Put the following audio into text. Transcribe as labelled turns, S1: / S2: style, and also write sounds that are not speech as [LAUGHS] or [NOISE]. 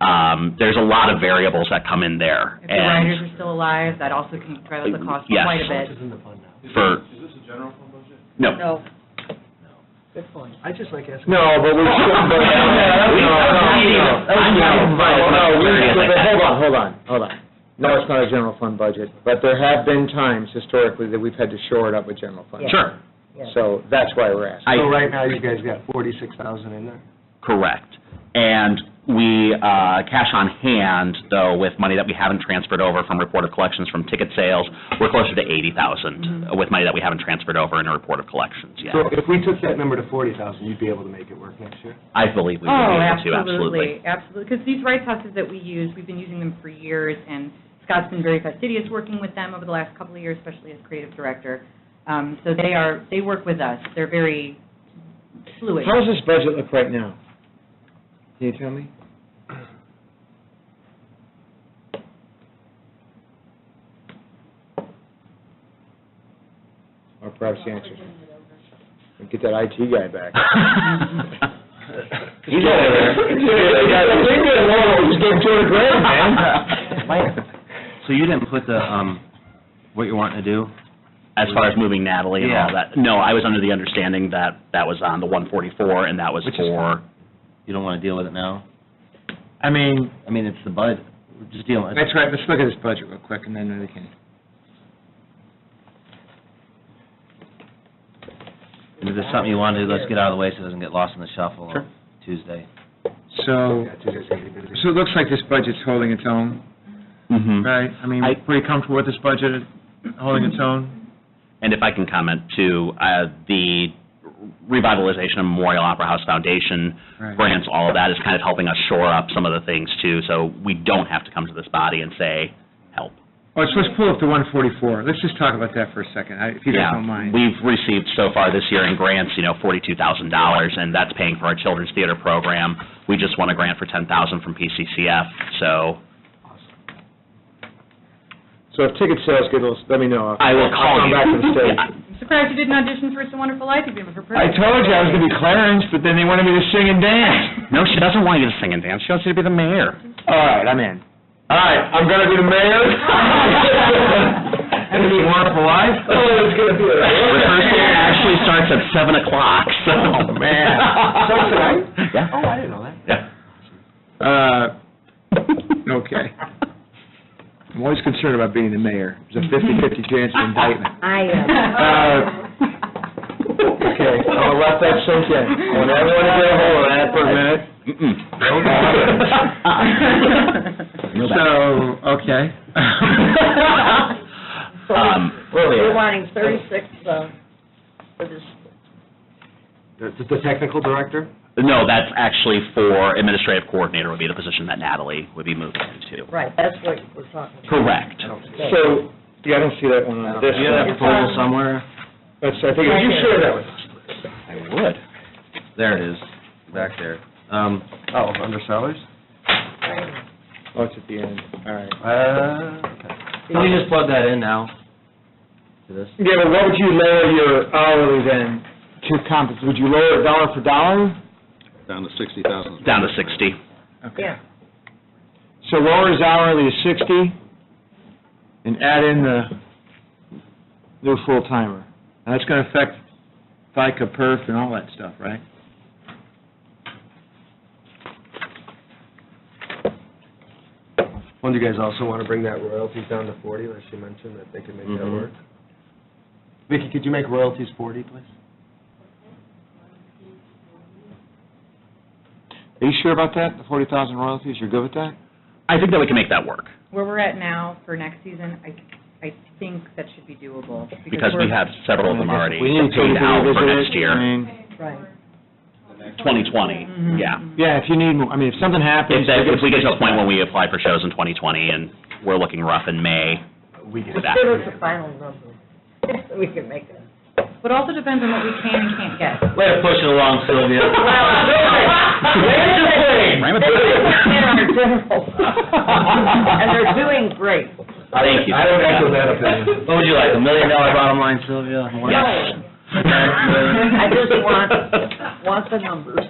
S1: Um, There's a lot of variables that come in there.
S2: If the
S1: And
S2: riders are still alive, that also can drive up the cost
S1: Yes.
S2: quite a bit.
S3: in the fund now?
S1: for,
S4: Is this a general fund budget?
S1: no.
S3: That's fine. I just like asking.
S5: No, [LAUGHS] but we should, but, no, no, no, no. No, we should, but hold on, hold on, hold on. No, it's not a general fund budget, but there have been times historically that we've had to shore it up with general fund.
S1: Sure,
S5: So that's why we're asking.
S3: So
S1: I,
S3: right now, you guys got forty-six thousand in there?
S1: correct. And we, uh, cash on hand, though, with money that we haven't transferred over from report of collections from ticket sales, we're closer to 80,000
S2: Mm-hmm.
S1: with money that we haven't transferred over in a report of collections yet.
S3: So if we took that number to forty thousand, you'd be able to make it work next year?
S1: I believe we would
S2: Oh,
S1: be able to,
S2: absolutely, absolutely. Because these rights houses that we use, we've been using them for years, and Scott's been very fastidious working with them over the last couple of years, especially as creative director. Um, So they are, they work with us. They're very fluid.
S5: How does this budget look right now? Can you tell me? Or perhaps the answer, get that IT guy back. He's over there. He's getting old. He's getting two hundred grand, man.
S6: So you didn't put the, um, what you're wanting to do?
S1: As far as moving Natalie and all
S6: Yeah.
S1: that, no, I was under the understanding that that was on the 144, and that was
S6: Which is
S1: for,
S6: You don't wanna deal with it now?
S5: I mean,
S6: I mean, it's the bud, We're just dealing with it.
S5: that's right, let's look at this budget real quick, and then we can.
S6: If there's something you wanna do, let's get out of the way so it doesn't get lost in the shuffle
S5: Sure.
S6: on Tuesday.
S5: So,
S3: Yeah, two days, eighty busy.
S5: so it looks like this budget's holding its own,
S1: Mm-hmm.
S5: right? I mean,
S1: I-
S5: pretty comfortable with this budget holding its own?
S1: and if I can comment too, uh, the revitalization of Memorial Opera House Foundation
S5: Right.
S1: grants, all of that is kind of helping us shore up some of the things too, so we don't have to come to this body and say, help.
S5: Let's, let's pull up the one forty-four. Let's just talk about that for a second, I- if you guys
S1: Yeah,
S5: don't mind.
S1: We've received so far this year in grants, you know, forty-two thousand dollars, and that's paying for our children's theater program. We just won a grant for ten thousand from PCCF, so
S5: So if ticket sales get a little, let me know.
S1: I will call
S5: I'll come
S1: you.
S5: back to the stage.
S1: Yeah.
S2: I'm surprised you didn't audition for It's a Wonderful Life if you ever
S5: I
S2: [LAUGHS]
S5: told you I was gonna be Clarence, but then they wanted me to sing and dance.
S1: No, she doesn't want you to sing and dance, she wants you to be the
S5: [LAUGHS]
S1: mayor.
S5: All right, I'm in. All right, I'm gonna be the mayor? [LAUGHS] Gonna be wonderful life? Oh, it's gonna be.
S1: Rehearsal actually starts at seven o'clock, so.
S5: Oh, man. Starts tonight?
S1: Yeah.
S3: Oh, I didn't know that.
S1: Yeah.
S5: Uh, [LAUGHS] okay. I'm always concerned about being the mayor. There's a fifty-fifty chance
S1: [LAUGHS]
S5: of indictment.
S7: I am.
S2: uh,
S5: Okay, I'll let that sink in.
S2: [LAUGHS]
S5: I want everyone to get a hold of that for a minute.
S1: [LAUGHS] Mm-mm.
S5: okay.
S1: [LAUGHS] Um,
S5: Where we
S7: We're
S5: at?
S7: wanting thirty-six, uh, for this,
S3: The, the technical director?
S1: No, that's actually for administrative coordinator would be the position that Natalie would be moving into.
S7: right, that's what we're talking about.
S1: Correct.
S5: So, yeah, I don't see that one on this
S6: Do you have that
S5: one.
S6: proposal somewhere?
S5: That's, I think, you share that with us.
S1: I would.
S6: There it is, back there. Um,
S3: Oh, under salaries?
S5: Oh, it's at the end, all right.
S6: uh, can you just plug that in now? To this?
S5: Yeah, but what would you lower your hourly then to compensate? Would you lower it dollar for dollar?
S4: Down to sixty thousand.
S1: Down to 60.
S7: Yeah.
S5: So lower his hourly to sixty and add in the new full-timer. Now, that's gonna affect FICA, perf, and all that stuff, right?
S3: One, do you guys also wanna bring that royalties down to forty, like she mentioned, that they can make that
S6: Mhm.
S3: work? Vicky, could you make royalties forty, please?
S5: Are you sure about that, the forty thousand royalties? You're good with that?
S1: I think that we can make that work,
S2: Where we're at now for next season, I, I think that should be doable.
S1: because we
S2: we're-
S1: have several of them already
S5: We need to
S1: paid out for
S5: revisit it.
S1: next
S5: I
S1: year,
S5: mean,
S7: Right.
S2: Mm-hmm.
S1: 2020, yeah.
S5: Yeah, if you need, more I mean, if something happens.
S1: If that, if we get to a point when we apply for shows in 2020, and we're looking rough in May,
S3: We get
S1: With that. [LAUGHS]
S7: Give us a final number, [LAUGHS] so we can make it.
S2: But also depends on what we can and can't get.
S6: Way to push it
S1: [LAUGHS]
S6: along, Sylvia.
S1: Ram it
S7: They
S1: through.
S7: put
S1: [LAUGHS]
S7: in our general fund, And
S5: [LAUGHS]
S7: they're doing great.
S6: Thank you.
S3: I don't echo that opinion.
S6: What would you like, a million dollar bottom line, Sylvia? More?
S7: Yes. I just want, want the numbers.